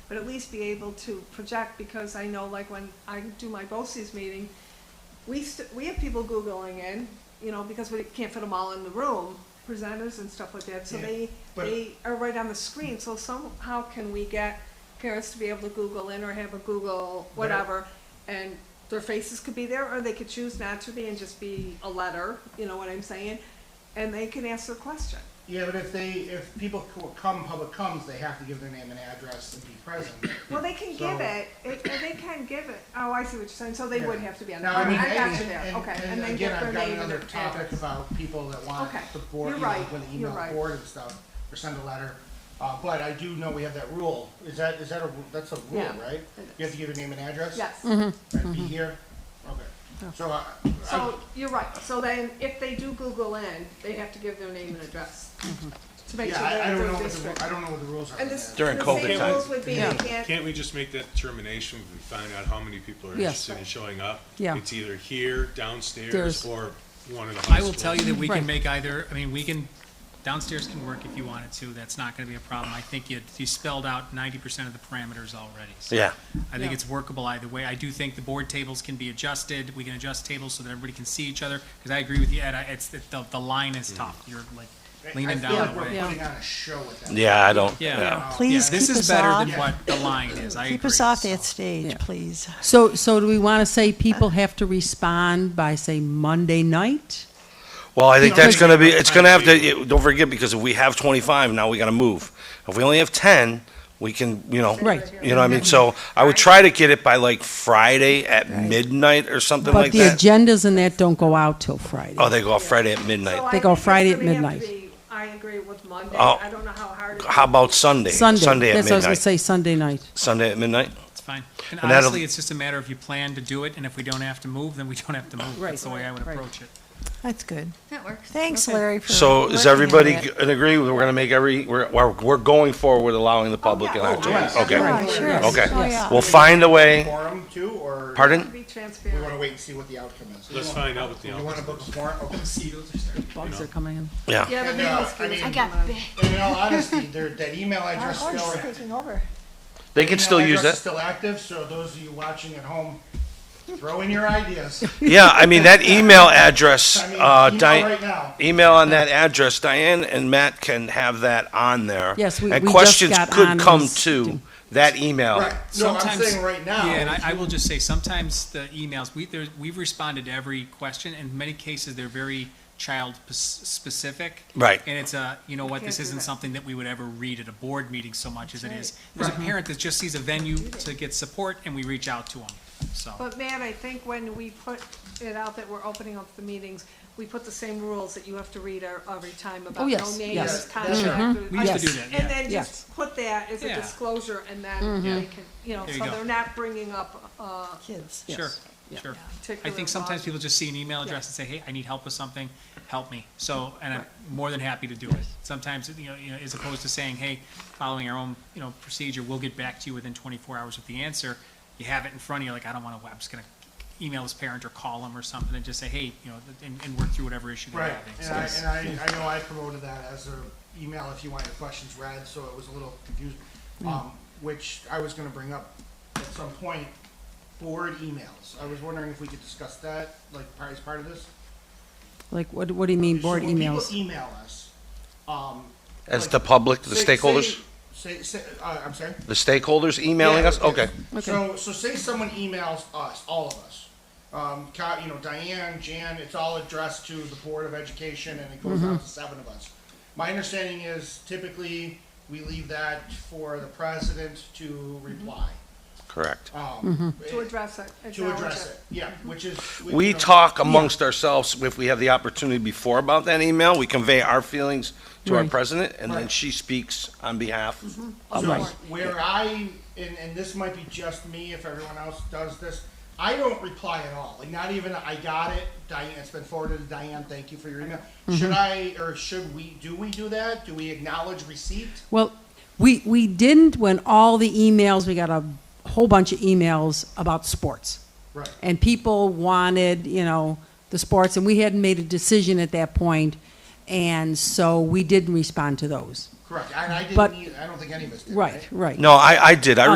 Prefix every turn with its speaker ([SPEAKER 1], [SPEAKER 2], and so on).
[SPEAKER 1] but at least be able to project, because I know like when I do my BOCES meeting, we st- we have people Googling in, you know, because we can't fit them all in the room, presenters and stuff like that, so
[SPEAKER 2] Yeah,
[SPEAKER 1] they,
[SPEAKER 2] but-
[SPEAKER 1] they are right on the screen, so somehow can we get parents to be able to Google in or have a Google
[SPEAKER 2] But I-
[SPEAKER 1] whatever, and their faces could be there, or they could choose not to be and just be a letter, you know what I'm saying? And they can ask their question.
[SPEAKER 2] Yeah, but if they, if people c- come, public comes, they have to give their name and address and be present.
[SPEAKER 1] Well, they can give
[SPEAKER 2] So-
[SPEAKER 1] it, it, and they can give it, oh, I see what you're saying, so they would
[SPEAKER 2] Yeah.
[SPEAKER 1] have to be on. the
[SPEAKER 2] Now, I mean,
[SPEAKER 1] I got you
[SPEAKER 2] and-
[SPEAKER 1] there,
[SPEAKER 2] and-
[SPEAKER 1] okay, and
[SPEAKER 2] and
[SPEAKER 1] then
[SPEAKER 2] again,
[SPEAKER 1] give their
[SPEAKER 2] I've got
[SPEAKER 1] name and
[SPEAKER 2] another
[SPEAKER 1] their
[SPEAKER 2] topic
[SPEAKER 1] address.
[SPEAKER 2] about people that want
[SPEAKER 1] Okay.
[SPEAKER 2] the board,
[SPEAKER 1] You're
[SPEAKER 2] you know,
[SPEAKER 1] right.
[SPEAKER 2] when they
[SPEAKER 1] You're
[SPEAKER 2] email
[SPEAKER 1] right.
[SPEAKER 2] the board and stuff, or send a letter. Uh, but I do know we have that rule. Is that, is that a, ru- that's a rule,
[SPEAKER 1] Yeah,
[SPEAKER 2] right?
[SPEAKER 1] it
[SPEAKER 2] You have to give your name and address?
[SPEAKER 1] Yes.
[SPEAKER 3] Mm-hmm.
[SPEAKER 2] And be here? Okay. So I, I,
[SPEAKER 1] So, you're right, so then if they do Google in, they have to give their name and address to make
[SPEAKER 2] yeah,
[SPEAKER 1] sure
[SPEAKER 2] I, I
[SPEAKER 1] they're
[SPEAKER 2] don't
[SPEAKER 1] in
[SPEAKER 2] know
[SPEAKER 1] their
[SPEAKER 2] what the,
[SPEAKER 1] district.
[SPEAKER 2] ru- I don't know what the rules are.
[SPEAKER 1] And
[SPEAKER 2] on
[SPEAKER 1] this,
[SPEAKER 2] that.
[SPEAKER 1] the
[SPEAKER 4] During COVID
[SPEAKER 1] same
[SPEAKER 4] times.
[SPEAKER 1] rules would be, they can't,
[SPEAKER 5] Can't we just make that determination when we find out how many people are
[SPEAKER 6] Yes.
[SPEAKER 5] interested in showing up?
[SPEAKER 6] Yeah.
[SPEAKER 5] It's either here, downstairs,
[SPEAKER 6] There's-
[SPEAKER 5] or one of the high
[SPEAKER 7] I
[SPEAKER 5] schools.
[SPEAKER 7] will tell you that we
[SPEAKER 6] Right.
[SPEAKER 7] can make either, I mean, we can, downstairs can work if you wanted to, that's not gonna be a problem. I think you, you spelled out ninety percent of the parameters already, so.
[SPEAKER 4] Yeah.
[SPEAKER 7] I think
[SPEAKER 6] Yeah.
[SPEAKER 7] it's workable either way. I do think the board tables can be adjusted, we can adjust tables so that everybody can see each other, because I agree with you, Ed, I- it's, the, the- the line
[SPEAKER 4] Mm.
[SPEAKER 7] is tough, you're like leaning
[SPEAKER 2] I feel
[SPEAKER 7] down
[SPEAKER 2] like
[SPEAKER 7] the
[SPEAKER 2] we're
[SPEAKER 7] way.
[SPEAKER 6] Yeah.
[SPEAKER 2] putting on a show with that. Uh,
[SPEAKER 4] Yeah, I don't.
[SPEAKER 7] Yeah.
[SPEAKER 5] Yeah.
[SPEAKER 8] Please
[SPEAKER 7] Yeah, this is
[SPEAKER 8] keep us
[SPEAKER 7] better than
[SPEAKER 8] off.
[SPEAKER 7] what the line is, I agree.
[SPEAKER 8] Keep us off
[SPEAKER 7] so.
[SPEAKER 8] that stage,
[SPEAKER 6] Yeah.
[SPEAKER 8] please.
[SPEAKER 6] So, so do we want to say people
[SPEAKER 2] Uh.
[SPEAKER 6] have to respond by, say, Monday night?
[SPEAKER 4] Well, I think
[SPEAKER 5] No,
[SPEAKER 4] that's
[SPEAKER 5] I-
[SPEAKER 4] gonna be, it's
[SPEAKER 5] I
[SPEAKER 4] gonna have to,
[SPEAKER 5] agree.
[SPEAKER 4] you- don't forget, because if we have twenty-five, now we gotta move. If we only have ten, we can, you know.
[SPEAKER 6] Right.
[SPEAKER 4] You know what I mean? So I would try to get it by like Friday at midnight or something
[SPEAKER 6] But
[SPEAKER 4] like
[SPEAKER 6] the
[SPEAKER 4] that.
[SPEAKER 6] agendas and that don't go out till Friday.
[SPEAKER 4] Oh, they go off Friday at
[SPEAKER 1] so
[SPEAKER 4] midnight.
[SPEAKER 1] I
[SPEAKER 6] They
[SPEAKER 1] think
[SPEAKER 6] go
[SPEAKER 1] it's
[SPEAKER 6] Friday at
[SPEAKER 1] gonna have to
[SPEAKER 6] midnight.
[SPEAKER 1] be- I agree with Monday,
[SPEAKER 4] Oh.
[SPEAKER 1] I don't know how hard. it
[SPEAKER 4] How
[SPEAKER 1] is.
[SPEAKER 4] about Sunday?
[SPEAKER 6] Sunday.
[SPEAKER 4] at
[SPEAKER 6] That's what I was going to
[SPEAKER 4] midnight.
[SPEAKER 6] say, Sunday night.
[SPEAKER 4] Sunday at midnight?
[SPEAKER 7] It's fine. And
[SPEAKER 4] And that'll-
[SPEAKER 7] honestly, it's just a matter of you plan to do it, and if we don't have to move, then we don't have to move.
[SPEAKER 6] Right,
[SPEAKER 7] That's the way I would
[SPEAKER 6] right.
[SPEAKER 7] approach it.
[SPEAKER 8] That's good.
[SPEAKER 3] That works.
[SPEAKER 8] Thanks,
[SPEAKER 6] Okay.
[SPEAKER 8] Larry, for.
[SPEAKER 4] So is
[SPEAKER 8] looking at
[SPEAKER 4] everybody
[SPEAKER 8] it.
[SPEAKER 4] g- in agree? We're gonna make every, we're, we're, we're going forward with allowing the
[SPEAKER 6] Oh,
[SPEAKER 4] public an opportunity?
[SPEAKER 2] yeah.
[SPEAKER 4] Okay.
[SPEAKER 8] Yeah, sure.
[SPEAKER 4] Okay.
[SPEAKER 8] Oh, yeah.
[SPEAKER 4] We'll find a way.
[SPEAKER 2] Forum too, or?
[SPEAKER 1] To
[SPEAKER 4] Pardon?
[SPEAKER 1] Be
[SPEAKER 2] We wanna
[SPEAKER 1] transparent.
[SPEAKER 2] wait and see what the outcome is. We
[SPEAKER 5] Let's
[SPEAKER 2] won't-
[SPEAKER 5] find out what the
[SPEAKER 2] We wanna
[SPEAKER 5] outcome
[SPEAKER 2] book a forum, okay, see those are starting.
[SPEAKER 6] Bugs are coming in.
[SPEAKER 4] Yeah.
[SPEAKER 1] Yeah, the
[SPEAKER 2] And, uh,
[SPEAKER 1] mosquitoes
[SPEAKER 2] I mean-
[SPEAKER 1] are
[SPEAKER 3] I
[SPEAKER 1] coming
[SPEAKER 3] got
[SPEAKER 1] out.
[SPEAKER 3] big.
[SPEAKER 2] And in all honesty, there, that email
[SPEAKER 8] Our
[SPEAKER 2] address
[SPEAKER 8] horse
[SPEAKER 2] still,
[SPEAKER 8] is taking over.
[SPEAKER 4] They can still
[SPEAKER 2] email
[SPEAKER 4] use
[SPEAKER 2] address is
[SPEAKER 4] that.
[SPEAKER 2] still active, so those of you watching at home, throw in your ideas.
[SPEAKER 4] Yeah, I mean, that email address,
[SPEAKER 2] I mean,
[SPEAKER 4] uh,
[SPEAKER 2] email
[SPEAKER 4] Diane,
[SPEAKER 2] right now.
[SPEAKER 4] email on that address, Diane and Matt can have that on there.
[SPEAKER 6] Yes, we-
[SPEAKER 4] And
[SPEAKER 6] we just
[SPEAKER 4] questions
[SPEAKER 6] got
[SPEAKER 4] could
[SPEAKER 6] on
[SPEAKER 4] come
[SPEAKER 6] this.
[SPEAKER 4] to that email.
[SPEAKER 2] Right, no, I'm
[SPEAKER 7] Sometimes-
[SPEAKER 2] saying right
[SPEAKER 7] Yeah, and
[SPEAKER 2] now,
[SPEAKER 7] I, I will just say, sometimes the emails, we, there, we've responded to every question, and in many cases, they're very child-specific.
[SPEAKER 4] Right.
[SPEAKER 7] And it's a, you know what,
[SPEAKER 1] Can't
[SPEAKER 7] this
[SPEAKER 1] do
[SPEAKER 7] isn't
[SPEAKER 1] that.
[SPEAKER 7] something that we would ever read at a board meeting so much as it is. There's a parent that just sees a venue to get support, and we reach out to them, so.
[SPEAKER 1] But Matt, I think when we put it out that we're opening up the meetings, we put the same rules that you have to read our- every time about
[SPEAKER 6] Oh,
[SPEAKER 1] no
[SPEAKER 6] yes,
[SPEAKER 1] names,
[SPEAKER 6] yes. Mm-hmm.
[SPEAKER 1] contact.
[SPEAKER 7] We used to do
[SPEAKER 6] Yes.
[SPEAKER 7] that,
[SPEAKER 1] And
[SPEAKER 7] yeah.
[SPEAKER 1] then
[SPEAKER 6] Yes. Mm-hmm.
[SPEAKER 1] just put that as a
[SPEAKER 7] Yeah.
[SPEAKER 1] disclosure and then they can, you know,
[SPEAKER 7] There you
[SPEAKER 1] so
[SPEAKER 7] go.
[SPEAKER 1] they're not bringing up a
[SPEAKER 8] Kids.
[SPEAKER 7] Sure, sure. I
[SPEAKER 1] particular.
[SPEAKER 7] think sometimes
[SPEAKER 1] law.
[SPEAKER 7] people just see an email address and say, hey, I need help with something, help me. So, and I'm more than happy to do it. Sometimes, you know, you know, as opposed to saying, hey, following our own, you know, procedure, we'll get back to you within twenty-four hours with the answer. You have it in front of you, like, I don't wanna, I'm just gonna email this parent or call them or something and just say, hey, you know, and, and work through whatever issue they're
[SPEAKER 2] right,
[SPEAKER 7] having.
[SPEAKER 2] and
[SPEAKER 7] So
[SPEAKER 2] I,
[SPEAKER 7] it's-
[SPEAKER 2] and I, I know I promoted that as a email if you want your questions read, so it was a little confused. Um, which I was gonna bring up at some point, board emails. I was wondering if we could discuss that, like, part- as part of this?
[SPEAKER 6] Like, what, what do you mean, board
[SPEAKER 2] so when
[SPEAKER 6] emails?
[SPEAKER 2] People email us. Um,
[SPEAKER 4] As
[SPEAKER 2] like,
[SPEAKER 4] the public, the
[SPEAKER 2] say-
[SPEAKER 4] stakeholders,
[SPEAKER 2] Say, say, say- uh, I'm sorry.
[SPEAKER 4] the stakeholders emailing
[SPEAKER 2] Yeah,
[SPEAKER 4] us? Okay.
[SPEAKER 2] yes. So, so say someone emails us, all of us. Um, co- you know, Diane, Jan, it's all addressed to the Board of Education, and it goes
[SPEAKER 6] Mm-hmm.
[SPEAKER 2] out to seven of us. My understanding is typically we leave that for the president to
[SPEAKER 6] Mm-hmm.
[SPEAKER 2] reply.
[SPEAKER 4] Correct.
[SPEAKER 2] Um,
[SPEAKER 1] To
[SPEAKER 2] eh,
[SPEAKER 1] address it.
[SPEAKER 2] to
[SPEAKER 1] acknowledge
[SPEAKER 2] address it, yeah, which is. you
[SPEAKER 4] We
[SPEAKER 2] know,
[SPEAKER 4] talk amongst ourselves, if we have the opportunity before about that email, we convey our feelings to our
[SPEAKER 6] Right.
[SPEAKER 4] president, and then
[SPEAKER 2] Right. Mm-hmm.
[SPEAKER 4] she speaks on behalf
[SPEAKER 6] Oh,
[SPEAKER 4] of
[SPEAKER 2] So
[SPEAKER 4] us.
[SPEAKER 2] where I, and, and this might be just me if everyone else does this, I don't reply at all. Like not even I got it, Diane, it's been forwarded to Diane, thank you for your email.
[SPEAKER 6] Mm-hmm.
[SPEAKER 2] Should I, or should we, do we do that? Do we acknowledge receipt?
[SPEAKER 6] Well, we, we didn't when all the emails, we got a whole bunch of emails about sports.
[SPEAKER 2] Right.
[SPEAKER 6] And people wanted, you know, the sports, and we hadn't made a decision at that point, and so we didn't respond to those.
[SPEAKER 2] Correct, and I
[SPEAKER 6] But-
[SPEAKER 2] didn't, either. I don't think any of us did,
[SPEAKER 6] Right, right.
[SPEAKER 4] No, I, I did. I